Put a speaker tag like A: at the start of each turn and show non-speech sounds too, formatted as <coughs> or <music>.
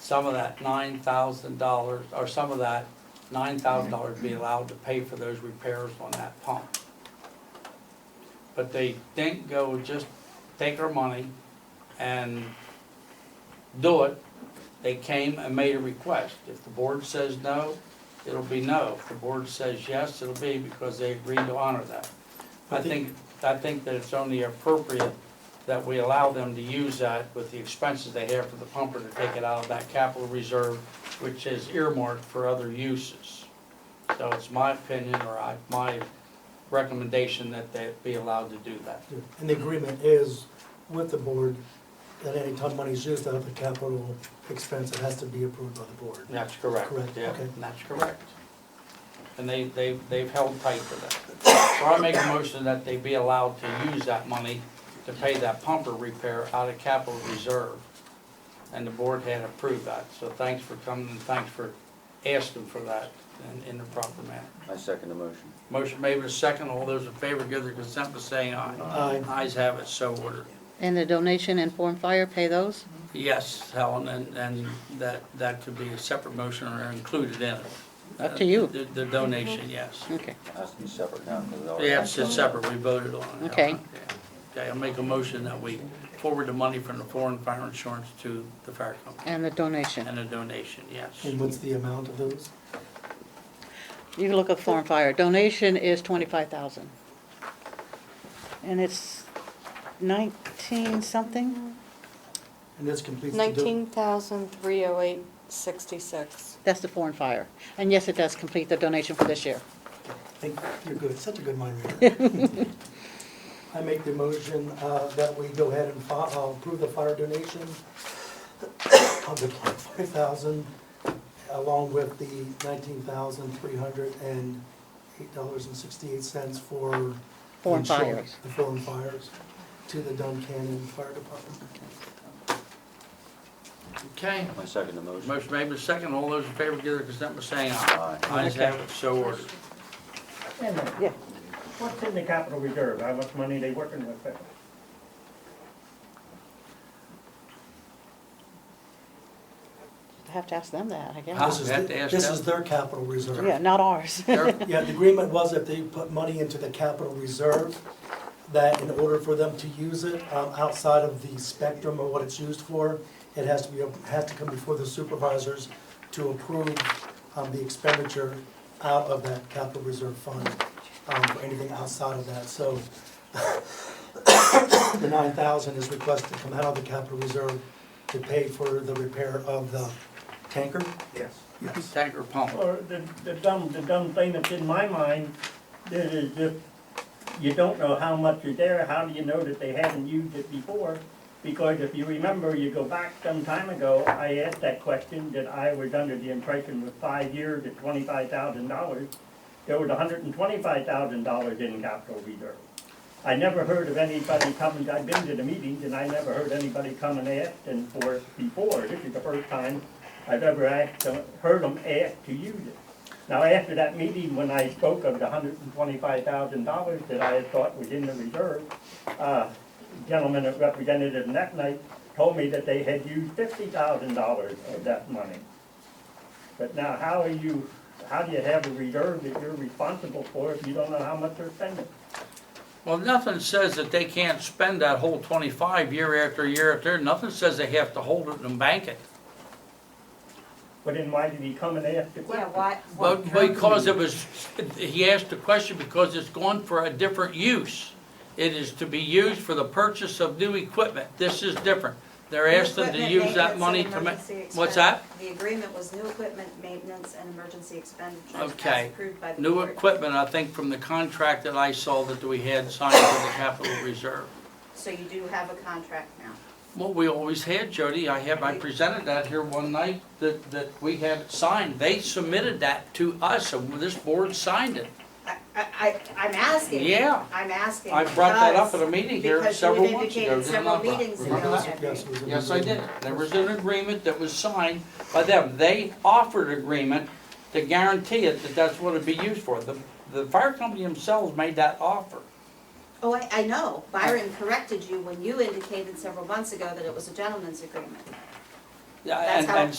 A: some of that nine thousand dollars, or some of that nine thousand dollars be allowed to pay for those repairs on that pump. But they didn't go just take our money and do it. They came and made a request. If the board says no, it'll be no. If the board says yes, it'll be because they agreed to honor that. I think, I think that it's only appropriate that we allow them to use that with the expenses they have for the pumper to take it out of that capital reserve, which is earmarked for other uses. So it's my opinion, or I, my recommendation that they be allowed to do that.
B: And the agreement is with the board that any time money's used out of the capital expense, it has to be approved by the board.
A: That's correct.
B: Correct,
A: Yeah,
B: okay.
A: That's correct. And they, they, they've held tight to that. So I make a motion that they be allowed to use that money to pay that pumper repair out of capital reserve. And the board had approved that, so thanks for coming and thanks for asking for that in, in the proper manner.
C: I second the motion.
A: Motion made with a second, all those in favor give their consent by saying aye.
B: Aye.
A: Ayes have it, so ordered.
D: And the donation and form fire, pay those?
A: Yes, Helen, and, and that, that could be a separate motion or included in it.
D: Up to you.
A: The the donation, yes.
D: Okay.
C: It has to be separate now. 'cause it already-
A: Yeah, it's just separate, we voted on it.
D: Okay.
A: Yeah. Okay, I'll make a motion that we forward the money from the foreign fire insurance to the fire company
D: And the donation.
A: and a donation, yes.
B: And what's the amount of those?
D: You can look up form fire. Donation is twenty-five thousand. And it's nineteen something?
B: And this completes the do-
E: Nineteen thousand three oh eight sixty-six.
D: That's the foreign fire. And yes, it does complete the donation for this year.
B: I think you're good, such a good mind reader. I make the motion uh, that we go ahead and fi- uh, approve the fire donation <coughs> of the twenty-five thousand along with the nineteen thousand three hundred and eight dollars and sixty-eight cents for
D: Foreign
B: the insurance-
D: fires.
B: The foreign fires to the Duncannon Fire Department.
A: Okay,
C: I second the motion.
A: motion made with a second, all those in favor give their consent by saying aye.
C: Aye.
A: Ayes have it, so ordered.
F: Wait a minute.
D: Yeah.
F: What's in the capital reserve? How much money they working with there?
D: I have to ask them that, I
A: Huh?
D: guess.
B: This is,
A: Ah, we have
B: the-
A: to ask
B: this
A: them?
B: is their capital reserve.
D: Yeah, not ours. <laughs>
A: Eric,
B: Yeah, the agreement was if they put money into the capital reserve, that in order for them to use it, um, outside of the spectrum of what it's used for, it has to be, has to come before the supervisors to approve, um, the expenditure out of that capital reserve fund, um, for anything outside of that, so <coughs> the nine thousand is requested to come out of the capital reserve to pay for the repair of the tanker?
F: Yes.
B: Yes.
A: Tanker pump.
F: Or the, the dumb, the dumb thing that's in my mind, that is if you don't know how much is there, how do you know that they haven't used it before? Because if you remember, you go back some time ago, I asked that question, that I was under the impression with five years at twenty-five thousand dollars, there was hundred and twenty-five thousand dollars in capital reserve. I never heard of anybody coming, I've been to the meetings, and I never heard anybody come and ask and for it before. This is the first time I've ever asked, them- heard them ask to use it. Now, after that meeting, when I spoke of the hundred and twenty-five thousand dollars that I had thought was in the reserve, uh, gentleman that represented it that night told me that they had used fifty thousand dollars of that money. But now, how are you, how do you have a reserve that you're responsible for if you don't know how much they're spending?
A: Well, nothing says that they can't spend that whole twenty-five year after year after, nothing says they have to hold it and bank it.
F: But then why did he come and ask the question?
A: Well, because it was, he asked the question because it's gone for a different use. It is to be used for the purchase of new equipment. This is different. They're asking to
G: Equipment
A: use that
G: maintenance
A: money
G: and
A: to ma-
G: emergency
A: what's
G: expense.
A: that?
G: The agreement was new equipment, maintenance, and emergency expenditures
A: Okay.
G: as approved by the
A: new
G: board.
A: equipment, I think, from the contract that I saw that we had signed with the capital reserve.
G: So you do have a contract now.
A: Well, we always had, Jody, I have, I presented that here one night, that, that we had it signed. They submitted that to us, and this board signed it.
G: I, I, I- I'm asking.
A: Yeah.
G: I'm asking.
A: I brought that up at
G: because-
A: a meeting here
G: because
A: several
G: you've
A: months ago,
G: indicated
A: did I not,
G: several
A: Brian?
G: meetings ago
A: Remember that?
G: that
B: Yes, it
G: we-
B: was in the
A: Yes, I did.
B: agreement.
A: There was an agreement that was signed by them. They offered agreement to guarantee it that that's what it'd be used for. The, the fire company themselves made that offer.
G: Oh, I, I know. Byron corrected you when you indicated several months ago that it was a gentleman's agreement.
A: Yeah,
G: That's
A: and-
G: how-
A: and